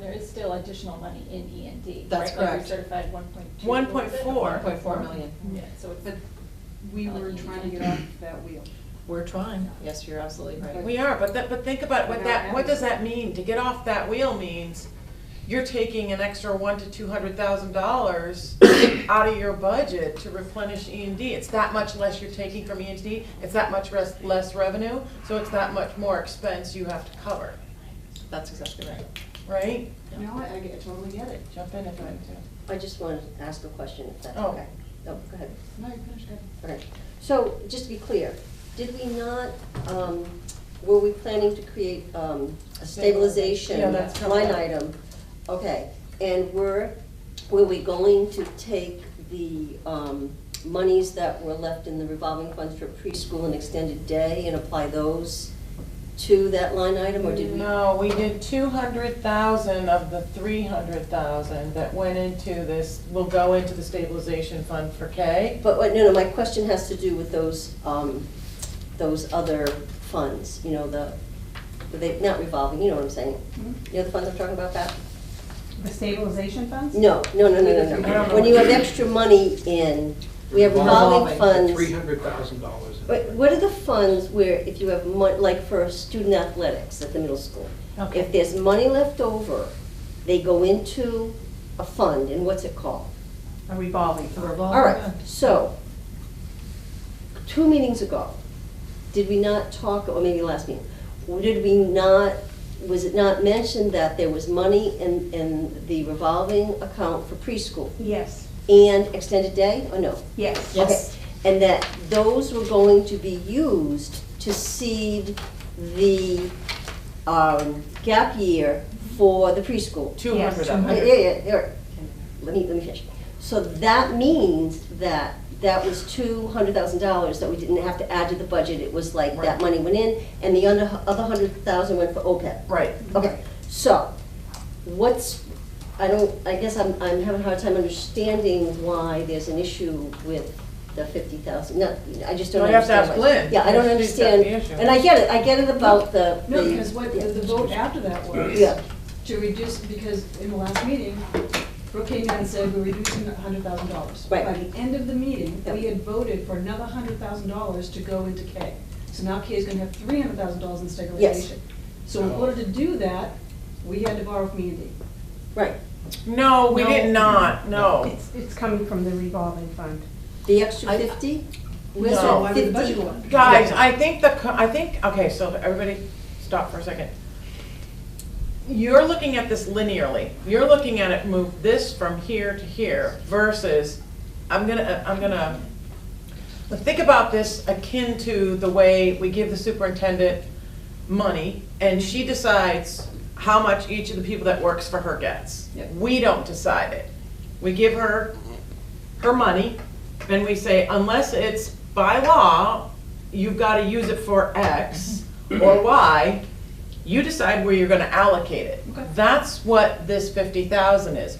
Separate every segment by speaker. Speaker 1: there is still additional money in E and D.
Speaker 2: That's correct.
Speaker 1: Certified one point two.
Speaker 3: 1.4.
Speaker 2: One point four million.
Speaker 1: Yeah, so it's.
Speaker 4: But we
Speaker 1: I'll let
Speaker 4: were
Speaker 1: you
Speaker 4: trying
Speaker 1: do
Speaker 4: to
Speaker 1: it.
Speaker 4: get off that wheel.
Speaker 2: We're trying, yes, you're absolutely right.
Speaker 3: We are, but that, but think about what that, what does that mean? To get off that wheel means you're taking an extra one to two hundred thousand dollars out of your budget to replenish E and D. It's that much less you're taking from E and D, it's that much res- less revenue, so it's that much more expense you have to cover,
Speaker 2: That's exactly right.
Speaker 3: right?
Speaker 4: No, I, I get- I totally get it.
Speaker 3: Jump in if you want to.
Speaker 5: I just want to ask a question, if that's
Speaker 3: Oh.
Speaker 5: okay. Oh, go ahead.
Speaker 4: No, you finished it.
Speaker 5: Okay. So, just to be clear, did we not, um, were we planning to create um, a stabilization
Speaker 3: Yeah, that's coming
Speaker 5: line
Speaker 3: up.
Speaker 5: item? Okay, and were, were we going to take the um, monies that were left in the revolving funds for preschool and extended day and apply those to that line item, or did we?
Speaker 3: No, we did two hundred thousand of the three hundred thousand that went into this, will go into the stabilization fund for K.
Speaker 5: But, wait, no, no, my question has to do with those, um, those other funds, you know, the, they, not revolving, you know what I'm saying?
Speaker 3: Mm-hmm.
Speaker 5: You know the funds I'm talking about, Pat?
Speaker 6: The stabilization funds?
Speaker 5: No, no, no, no, no,
Speaker 3: I don't
Speaker 5: no.
Speaker 3: know
Speaker 5: When
Speaker 3: what
Speaker 5: you
Speaker 3: you
Speaker 5: have
Speaker 3: mean.
Speaker 5: extra money in, we have revolving
Speaker 7: Three
Speaker 5: funds.
Speaker 7: hundred thousand dollars.
Speaker 5: But what are the funds where, if you have mon, like for student athletics at the middle school?
Speaker 3: Okay.
Speaker 5: If there's money left over, they go into a fund, and what's it called?
Speaker 6: A revolving
Speaker 2: The
Speaker 6: fund.
Speaker 2: revolving
Speaker 5: All right,
Speaker 2: fund.
Speaker 5: so, two meetings ago, did we not talk, or maybe last meeting, did we not, was it not mentioned that there was money in, in the revolving account for preschool
Speaker 6: Yes,
Speaker 5: and extended day, or no?
Speaker 6: yes.
Speaker 2: Yes.
Speaker 5: Okay, And that those were going to be used to seed the um, gap year for the preschool?
Speaker 3: Two hundred of
Speaker 5: Yeah,
Speaker 3: it.
Speaker 5: yeah, yeah, there. Let me, let me finish. So that means that that was two hundred thousand dollars that we didn't have to add to the budget. It was like
Speaker 3: Right.
Speaker 5: that money went in and the other, other hundred thousand went for OPEB.
Speaker 3: Right.
Speaker 5: Okay, so what's, I don't, I guess I'm, I'm having a hard time understanding why there's an issue with the fifty thousand. No, I just don't
Speaker 3: Well, you have to
Speaker 5: understand.
Speaker 3: ask
Speaker 5: why-
Speaker 3: Lynn.
Speaker 5: Yeah, I don't
Speaker 3: She's got the
Speaker 5: understand.
Speaker 3: issue.
Speaker 5: And I get it, I get it about the.
Speaker 4: No,
Speaker 5: the-
Speaker 4: because what,
Speaker 5: yeah.
Speaker 4: the vote after that was.
Speaker 5: Yeah.
Speaker 4: To reduce, because in the last meeting, Brooke came in and said we're reducing hundred thousand dollars.
Speaker 5: Right.
Speaker 4: By the end of the meeting, we
Speaker 5: Yeah.
Speaker 4: had voted for another hundred thousand dollars to go into K. So now K is gonna have three hundred thousand dollars in stabilization. So in order to do that, we had to borrow from E and D.
Speaker 5: Right,
Speaker 3: No, we did not, no.
Speaker 6: It's, it's coming from the revolving fund.
Speaker 5: the extra fifty? Where's
Speaker 3: No.
Speaker 5: that
Speaker 4: Why would the
Speaker 5: 50?
Speaker 4: budget go up?
Speaker 3: Guys, I think the, co- I think, okay, so everybody, stop for a second. You're looking at this linearly. You're looking at it, move this from here to here versus, I'm gonna, uh, I'm gonna, but think about this akin to the way we give the superintendent money and she decides how much each of the people that works for her gets.
Speaker 4: Yep.
Speaker 3: We don't decide it. We give her her money, and we say, unless it's by law, you've got to use it for X or Y, you decide where you're gonna allocate it.
Speaker 4: Okay.
Speaker 3: That's what this fifty thousand is.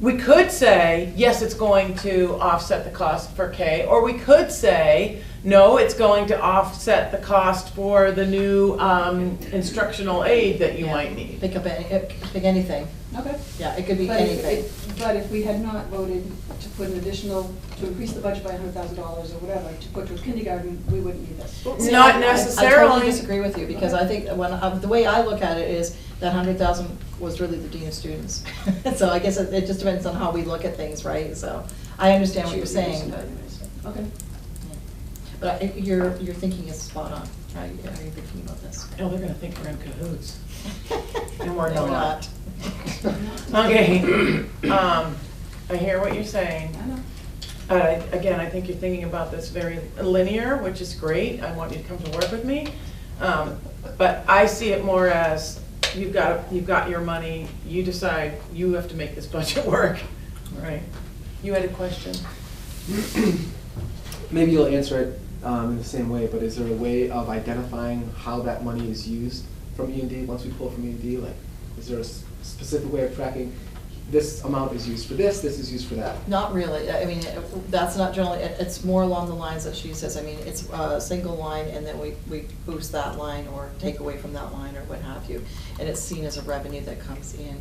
Speaker 3: We could say, yes, it's going to offset the cost for K, or we could say, no, it's going to offset the cost for the new um, instructional aid that you
Speaker 2: Yeah.
Speaker 3: might need.
Speaker 2: Pick up any, it- pick anything,
Speaker 4: Okay.
Speaker 2: yeah, it could be
Speaker 4: But if,
Speaker 2: anything.
Speaker 4: if- but if we had not voted to put an additional, to increase the budget by hundred thousand dollars or whatever, to put to kindergarten, we wouldn't need this.
Speaker 2: See,
Speaker 3: Not
Speaker 2: I- I- I
Speaker 3: necessarily.
Speaker 2: totally disagree with you, because I think, when, um, the way I look at it is, that hundred thousand was really the dean of students. So I guess it, it just depends on how we look at things, right, so, I understand what you're saying, but,
Speaker 4: Okay.
Speaker 2: but I- your, your thinking is spot on, how you- how you're thinking about this.
Speaker 3: Oh, they're gonna think we're in cahoots.
Speaker 2: No,
Speaker 3: And we're not. Okay, um, I hear what you're saying.
Speaker 4: I know.
Speaker 3: Uh, Again, I think you're thinking about this very linear, which is great. I want you to come to work with me. Um, But I see it more as, you've got, you've got your money, you decide, you have to make this budget work. Right. You had a question?
Speaker 8: Maybe you'll answer it um, in the same way, but is there a way of identifying how that money is used from E and D, once we pull from E and D? Like, is there a s- specific way of tracking, this amount is used for this, this is used for that?
Speaker 2: Not really, I I mean, it- that's not generally, it- it's more along the lines that she says, I mean, it's a single line, and then we, we boost that line, or take away from that line, or what have you. And it's seen as a revenue that comes in